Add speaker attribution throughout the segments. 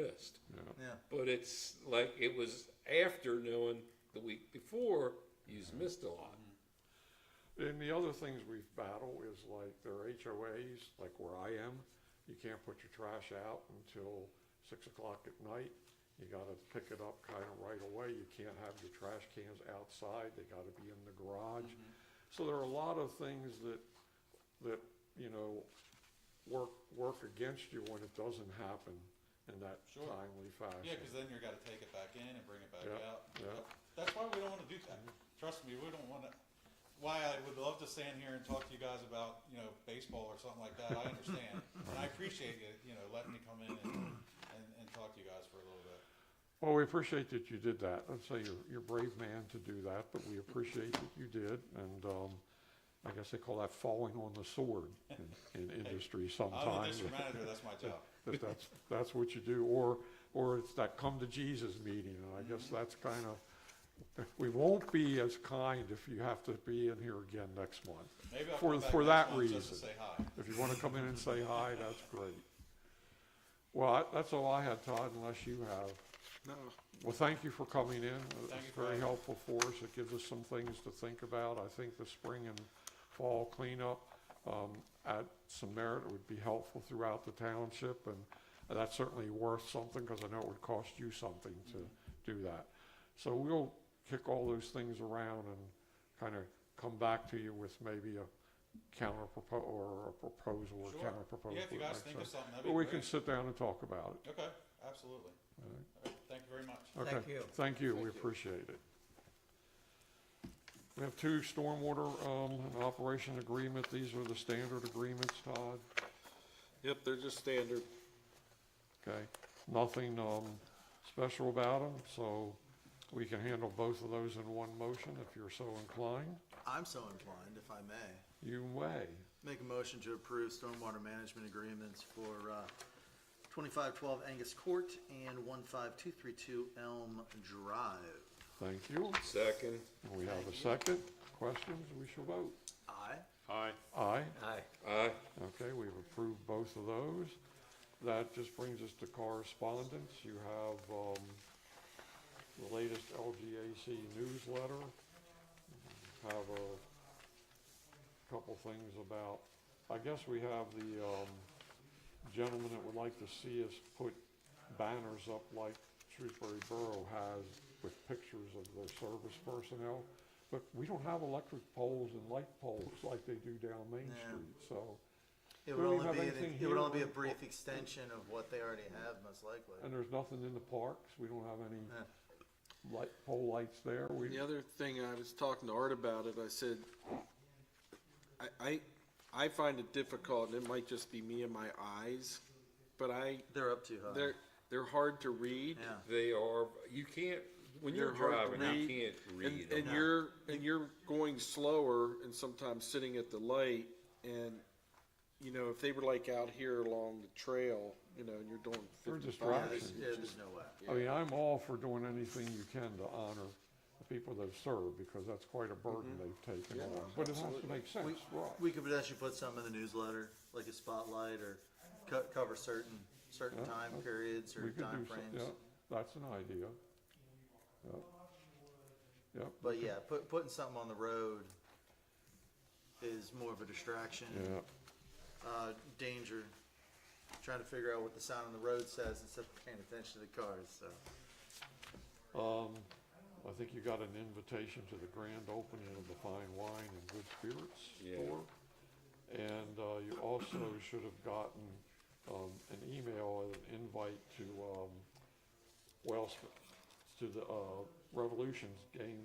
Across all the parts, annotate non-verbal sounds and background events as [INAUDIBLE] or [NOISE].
Speaker 1: list.
Speaker 2: Yeah.
Speaker 1: But it's like it was after knowing the week before you's missed a lot.
Speaker 3: And the other things we've battled is like their HOAs, like where I am, you can't put your trash out until six o'clock at night. You gotta pick it up kinda right away. You can't have your trash cans outside. They gotta be in the garage.
Speaker 2: Mm-hmm.
Speaker 3: So there are a lot of things that, that, you know, work, work against you when it doesn't happen in that
Speaker 2: Sure.
Speaker 3: timely
Speaker 2: Yeah,
Speaker 3: fashion.
Speaker 2: because then you're gotta take it back in and bring it back
Speaker 3: Yeah,
Speaker 2: out.
Speaker 3: yeah.
Speaker 2: That- That's why we don't wanna do that. Trust me, we don't wanna, why I would love to stand here and talk to you guys about, you know, baseball or something like that, I understand. And I appreciate you, you know, letting me come in and, and, and talk to you guys for a little bit.
Speaker 3: Well, we appreciate that you did that. I'd say you're, you're a brave man to do that, but we appreciate that you did. And, um, I guess they call that falling on the sword in, in industry
Speaker 2: I'm the
Speaker 3: sometimes.
Speaker 2: district manager, Oh, that's my job.
Speaker 3: That that's, that's what you do, or, or it's that come to Jesus meeting, and I guess that's kind of, we won't be as kind if you have to be in here again next month.
Speaker 2: Maybe I'll
Speaker 3: For-
Speaker 2: come back
Speaker 3: for
Speaker 2: next
Speaker 3: that
Speaker 2: month just to
Speaker 3: reason.
Speaker 2: say hi.
Speaker 3: If you want to come in and say hi, that's great. Well, I- that's all I had, Todd, unless you have.
Speaker 4: No,
Speaker 3: Well, thank you for coming in.
Speaker 2: Thank you
Speaker 3: It's
Speaker 2: for
Speaker 3: very
Speaker 2: having me.
Speaker 3: helpful for us. It gives us some things to think about. I think the spring and fall cleanup um, at some merit would be helpful throughout the township, and that's certainly worth something, because I know it would cost you something
Speaker 2: Mm-hmm.
Speaker 3: to do that. So we'll kick all those things around and kind of come back to you with maybe a counter propo or a proposal or
Speaker 2: Sure.
Speaker 3: counter proposal.
Speaker 2: Yeah, if you
Speaker 3: that
Speaker 2: guys
Speaker 3: makes
Speaker 2: think of
Speaker 3: sense.
Speaker 2: something, that'd be
Speaker 3: But we can
Speaker 2: great.
Speaker 3: sit down and talk about it.
Speaker 2: Okay, absolutely. All right, Thank you very much.
Speaker 3: Okay.
Speaker 5: Thank you.
Speaker 3: Thank you,
Speaker 2: Thank
Speaker 3: we
Speaker 2: you.
Speaker 3: appreciate it. We have two stormwater, um, and operation agreement, these are the standard agreements, Todd,
Speaker 4: yep, they're just standard.
Speaker 3: okay? Nothing, um, special about them, so we can handle both of those in one motion if you're so inclined.
Speaker 5: I'm so inclined, if I may,
Speaker 3: You may,
Speaker 5: make a motion to approve stormwater management agreements for, uh, twenty-five twelve Angus Court and one five two three two Elm Drive.
Speaker 3: thank you,
Speaker 1: Second,
Speaker 3: And we have
Speaker 5: Thank
Speaker 3: a
Speaker 5: you.
Speaker 3: second, questions, we shall vote.
Speaker 5: Aye.
Speaker 4: Aye.
Speaker 3: Aye,
Speaker 5: Aye.
Speaker 1: aye.
Speaker 3: okay, we've approved both of those. That just brings us to correspondence. You have, um, the latest LGAC newsletter. Have a couple things about, I guess we have the, um, gentleman that would like to see us put banners up like Shrewsbury Borough has with pictures of their service personnel. But we don't have electric poles and light poles like they do down Main
Speaker 5: Yeah.
Speaker 3: Street, so.
Speaker 5: It
Speaker 3: Do
Speaker 5: would
Speaker 3: we
Speaker 5: only
Speaker 3: have
Speaker 5: be,
Speaker 3: anything
Speaker 5: an- it would only be
Speaker 3: here?
Speaker 5: a brief extension of what they already have, most likely.
Speaker 3: And there's nothing in the parks, we don't have any
Speaker 5: Yeah.
Speaker 3: light, pole lights there, we,
Speaker 4: The other thing, I was talking to Art about it, I said, I, I, I find it difficult, and it might just be me and my eyes, but I,
Speaker 5: They're up too high.
Speaker 4: they're, they're hard to read.
Speaker 5: Yeah.
Speaker 1: They are, you can't, when you're
Speaker 4: They're hard to
Speaker 1: driving, you
Speaker 4: read,
Speaker 1: can't
Speaker 4: And,
Speaker 1: read
Speaker 4: and
Speaker 1: them.
Speaker 4: you're, and you're going slower and sometimes sitting at the light and, you know, if they were like out here along the trail, you know, and you're doing
Speaker 3: They're
Speaker 5: Yeah,
Speaker 3: distractions.
Speaker 4: fifty-five.
Speaker 5: there's, yeah, there's no way.
Speaker 3: I mean, I'm all for doing anything you can to honor the people that serve, because that's quite a burden they've taken
Speaker 4: Yeah,
Speaker 3: on. But it has to
Speaker 4: absolutely.
Speaker 3: make
Speaker 5: We,
Speaker 3: sense, right?
Speaker 5: we could potentially put some in the newsletter, like a spotlight or co- cover certain, certain
Speaker 3: Yeah,
Speaker 5: time
Speaker 3: okay.
Speaker 5: periods or
Speaker 3: We could do some-
Speaker 5: time frames.
Speaker 3: yeah, That's an idea. Yep. Yep.
Speaker 5: But yeah, put, putting something on the road is more of a distraction,
Speaker 3: Yeah,
Speaker 5: uh, danger. Trying to figure out what the sign on the road says instead of paying attention to the cars, so.
Speaker 3: um, I think you got an invitation to the grand opening of the Fine Wine and Good Spirits
Speaker 1: Yeah.
Speaker 3: store. And, uh, you also [COUGHS] should have gotten, um, an email, and an invite to, um, Wells, to the, uh, Revolutions game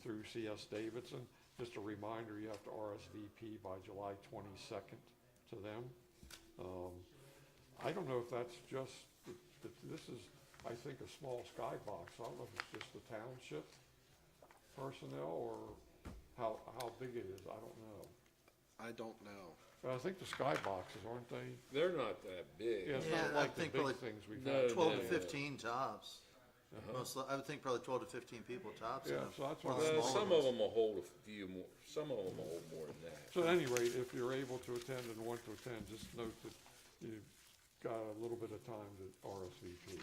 Speaker 3: through CS Davidson. Just a reminder, you have to RSVP by July twenty-second to them. Um, I don't know if that's just, th- th- this is, I think, a small skybox. I don't know if it's just the township personnel or how, how big it is. I don't know.
Speaker 4: I don't know.
Speaker 3: But I think the skyboxes, aren't they?
Speaker 1: They're not that big.
Speaker 3: Yeah, it's
Speaker 5: Yeah,
Speaker 3: not
Speaker 5: I
Speaker 3: like the
Speaker 5: think really
Speaker 3: big things we've
Speaker 1: no,
Speaker 3: had.
Speaker 5: Uh, Twelve to
Speaker 1: Oh, Yeah. Uh-huh.
Speaker 5: fifteen tops. Most, li- I would think probably twelve to fifteen people tops. in
Speaker 3: Yeah,
Speaker 5: a-
Speaker 3: so that's
Speaker 5: one
Speaker 3: what
Speaker 1: Uh,
Speaker 3: I'm-
Speaker 5: smaller
Speaker 1: some
Speaker 5: ones.
Speaker 1: of them will hold a few more, some of them will hold more than that.
Speaker 3: So at any rate, if you're able to attend and want to attend, just note that you got a little bit of time to RSVP.